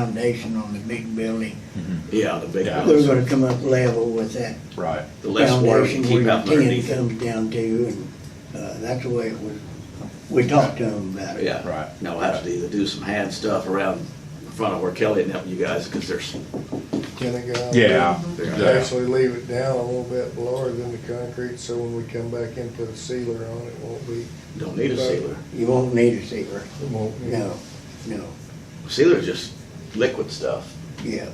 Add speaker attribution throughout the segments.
Speaker 1: foundation on the big building.
Speaker 2: Yeah, the big
Speaker 3: Yeah.
Speaker 1: We're
Speaker 2: house,
Speaker 1: gonna come up level with that
Speaker 3: Right.
Speaker 2: the less water you
Speaker 1: foundation where
Speaker 2: keep
Speaker 1: your
Speaker 2: out
Speaker 1: tin
Speaker 2: underneath.
Speaker 1: comes down to, and, uh, that's the way it was, we talked to them about it.
Speaker 2: Yeah.
Speaker 3: Right.
Speaker 2: Now we'll have to either do some hand stuff around in front of where Kelly and helping you guys, because there's,
Speaker 4: Can it go? out
Speaker 3: Yeah,
Speaker 4: there?
Speaker 3: yeah.
Speaker 4: Actually leave it down a little bit lower than the concrete, so when we come back in, put a sealer on it, won't be,
Speaker 2: don't need a sealer.
Speaker 1: You won't need a sealer,
Speaker 4: it won't be.
Speaker 1: no, no,
Speaker 2: Sealer's just liquid stuff.
Speaker 1: yeah.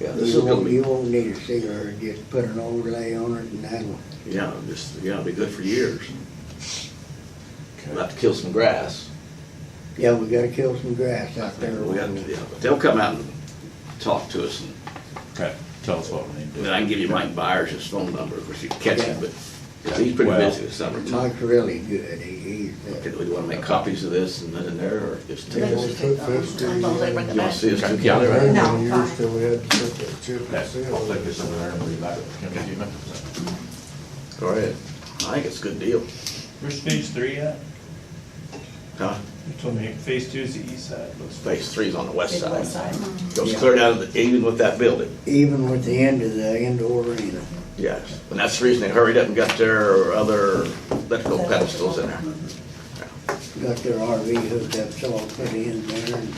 Speaker 2: Yeah,
Speaker 1: You
Speaker 2: this is gonna
Speaker 1: won't, you
Speaker 2: be,
Speaker 1: won't need a sealer, just put an overlay on it and that'll,
Speaker 2: yeah, just, yeah, it'll be good for years. We'll
Speaker 3: Okay.
Speaker 2: have to kill some grass.
Speaker 1: yeah, we gotta kill some grass out there.
Speaker 2: We have to, yeah, but they'll come out and talk to us, and
Speaker 3: Okay, tell us what we need to
Speaker 2: then
Speaker 3: do.
Speaker 2: I can give you Mike Byers' his phone number, of course you can catch him, but, 'cause he's pretty
Speaker 3: Well-
Speaker 2: busy this summertime.
Speaker 1: Mike's really good, he, he's, uh,
Speaker 2: Okay, Do we wanna make copies of this and then in there, or just take
Speaker 4: Yeah.
Speaker 2: it?
Speaker 4: we'll
Speaker 5: Let's take
Speaker 4: put this
Speaker 5: those.
Speaker 4: to
Speaker 5: I'm gonna
Speaker 4: the,
Speaker 5: bring
Speaker 2: You
Speaker 5: it
Speaker 2: wanna
Speaker 5: back.
Speaker 2: see us
Speaker 3: Okay.
Speaker 2: do together?
Speaker 4: Maybe
Speaker 5: No,
Speaker 4: when you used
Speaker 5: fine.
Speaker 4: to, we had to put that chip and
Speaker 3: Okay,
Speaker 4: seal.
Speaker 3: I'll take
Speaker 4: on
Speaker 3: this
Speaker 4: it.
Speaker 3: over there and bring it back. Can we do that?
Speaker 2: Go ahead. I think it's a good deal.
Speaker 6: Where's phase three at?
Speaker 2: Huh?
Speaker 6: You told me phase two is the east side, looks
Speaker 2: Phase three's on the west
Speaker 5: Big west
Speaker 2: side.
Speaker 5: side.
Speaker 2: Goes
Speaker 1: Yeah.
Speaker 2: clear down, to the- even with that building,
Speaker 1: even with the end of the indoor arena.
Speaker 2: yes. And that's the reason they hurried up and got their other electrical pedestals in there.
Speaker 1: got their RV hooked up, so I'll put it in there and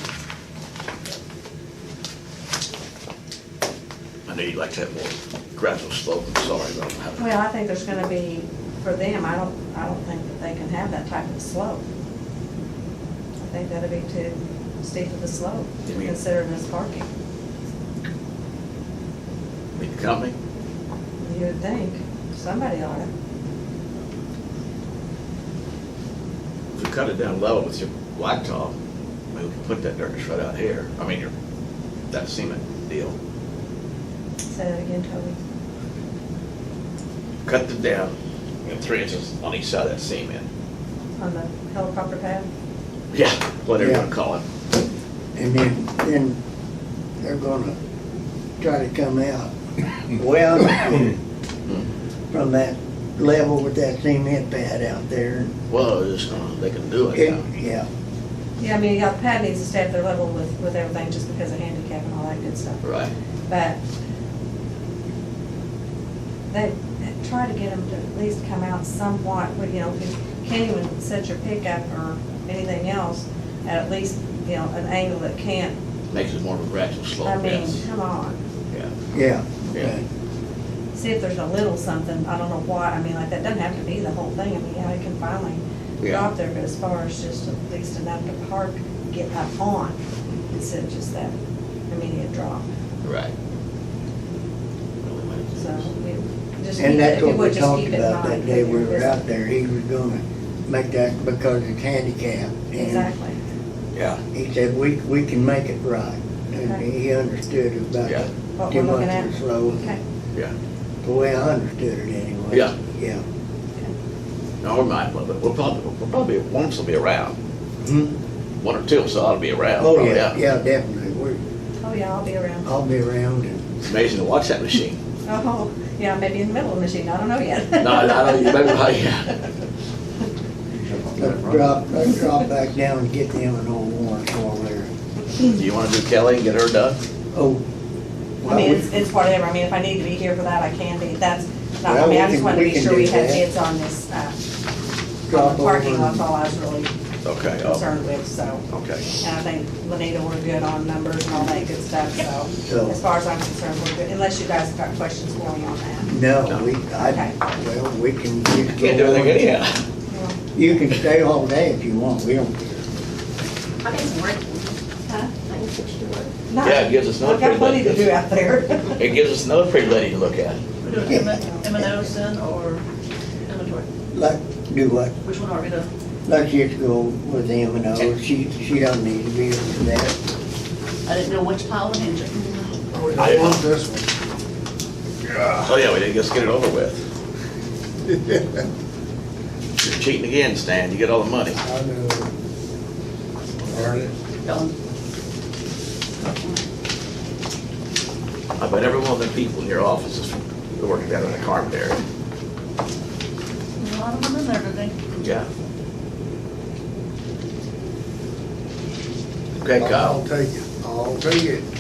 Speaker 2: I know you'd like to have more gradual slope, I'm sorry, but I don't have it.
Speaker 5: Well, I think there's gonna be, for them, I don't, I don't think that they can have that type of slope. I think that'd be too steep of a slope,
Speaker 2: You mean-
Speaker 5: considering this parking,
Speaker 2: Meet the company?
Speaker 5: you would think, somebody ought to.
Speaker 2: If you cut it down level with your blacktop, maybe we can put that dirt just right out here. I mean, your, that cement deal.
Speaker 5: Say that again, Toby.
Speaker 2: Cut it down, you know, three inches on each side of that cement.
Speaker 5: On the helicopter pad?
Speaker 2: Yeah, whatever you
Speaker 1: Yeah.
Speaker 2: wanna call it.
Speaker 1: And then, then they're gonna try to come out well from that level with that cement pad out there.
Speaker 2: Well, it's just gonna, they can do it
Speaker 1: It-
Speaker 2: now.
Speaker 1: Yeah,
Speaker 5: Yeah, I mean, yeah, the pad needs to stay at their level with, with everything, just because of handicap and all that good stuff.
Speaker 2: Right.
Speaker 5: But they try to get them to at least come out somewhat, but, you know, if you can't even set your pickup or anything else at at least, you know, an angle that can't,
Speaker 2: Makes it more of a gradual
Speaker 5: I
Speaker 2: slope,
Speaker 5: mean,
Speaker 2: yes.
Speaker 5: come on.
Speaker 2: Yeah.
Speaker 1: yeah.
Speaker 2: Yeah.
Speaker 5: See if there's a little something, I don't know why, I mean, like, that doesn't have to be the whole thing, I mean, yeah, it can finally
Speaker 2: Yeah.
Speaker 5: drop there, but as far as just at least enough to park, get up on, instead of just that immediate drop,
Speaker 2: Right.
Speaker 5: so we just.
Speaker 1: And
Speaker 5: keep
Speaker 1: that's
Speaker 5: it-
Speaker 1: what
Speaker 5: would
Speaker 1: we
Speaker 5: just
Speaker 1: talked
Speaker 5: keep it in
Speaker 1: about that
Speaker 5: mind
Speaker 1: day we
Speaker 5: when
Speaker 1: were
Speaker 5: you're
Speaker 1: out there. He was gonna make that because it's handicapped. and
Speaker 5: Exactly.
Speaker 2: Yeah,
Speaker 1: He said, we, we can make it right. And
Speaker 5: Okay.
Speaker 1: he understood about
Speaker 2: Yeah.
Speaker 5: What
Speaker 1: too
Speaker 5: we're looking
Speaker 1: much of
Speaker 5: at.
Speaker 1: the slope,
Speaker 5: Okay.
Speaker 2: yeah.
Speaker 1: the way I understood it anyway.
Speaker 2: Yeah.
Speaker 1: Yeah.
Speaker 2: No, we might, but we'll probably, we'll probably, one of us will be around.
Speaker 1: Hmm?
Speaker 2: One or two of us ought to be around.
Speaker 1: Oh,
Speaker 2: probably,
Speaker 1: yeah, yeah, definitely. We're,
Speaker 5: Oh, yeah, I'll be around.
Speaker 1: I'll be around and,
Speaker 2: It's amazing to watch that machine.
Speaker 5: Oh, yeah, maybe in the middle of the machine, I don't know yet.
Speaker 2: No, I don't, you better, not, yeah.
Speaker 1: let's drop, let's drop back down and get them an old warrant while they're,
Speaker 2: Do you wanna do Kelly and get her done?
Speaker 1: oh.
Speaker 5: I mean, it's, it's whatever, I mean, if I need to be here for that, I can be, that's, not, I
Speaker 1: Well,
Speaker 5: mean, I
Speaker 1: we
Speaker 5: just
Speaker 1: can-
Speaker 5: wanted to
Speaker 1: we
Speaker 5: be
Speaker 1: can
Speaker 5: sure we
Speaker 1: do
Speaker 5: had
Speaker 1: that.
Speaker 5: bids on this, uh, on
Speaker 1: Drop
Speaker 5: the
Speaker 1: over
Speaker 5: parking lot,
Speaker 1: and-
Speaker 5: that's all I was really
Speaker 2: Okay, oh,
Speaker 5: concerned with, so.
Speaker 2: okay.
Speaker 5: And I think Lenita, we're good on numbers and all that good stuff, so,
Speaker 1: So-
Speaker 5: as far as I'm concerned, we're good, unless you guys have got questions for me on that.
Speaker 1: No, we, I,
Speaker 5: Okay.
Speaker 1: well, we can. just
Speaker 2: Can't do
Speaker 1: go
Speaker 2: anything
Speaker 1: on.
Speaker 2: anyhow.
Speaker 1: You can stay all day if you want, we don't care.
Speaker 7: I didn't work. Huh? I didn't switch to work.
Speaker 5: No,
Speaker 2: Yeah, it gives us another
Speaker 5: I've got plenty
Speaker 2: pretty
Speaker 5: to
Speaker 2: good-
Speaker 5: do out there.
Speaker 2: It gives us another pretty lady to look at.
Speaker 7: We're doing M and O's then, or inventory?
Speaker 1: Let, do what?
Speaker 7: Which one are we doing?
Speaker 1: Let's just go with M and O, she, she don't need to be with that.
Speaker 7: I didn't know which pile to hand you.
Speaker 4: Oh, we
Speaker 2: I
Speaker 4: don't
Speaker 2: didn't-
Speaker 4: want this one.
Speaker 2: Oh, yeah, we did, just get it over with. You're cheating again, Stan, you get all the money.
Speaker 4: I know. Darn it.
Speaker 7: Ellen.
Speaker 2: I bet every one of them people in your office is working down in the carpet area.
Speaker 7: A lot of them in there, did they?
Speaker 2: Yeah. Okay, Kyle.
Speaker 4: I'll take it. I'll All three, it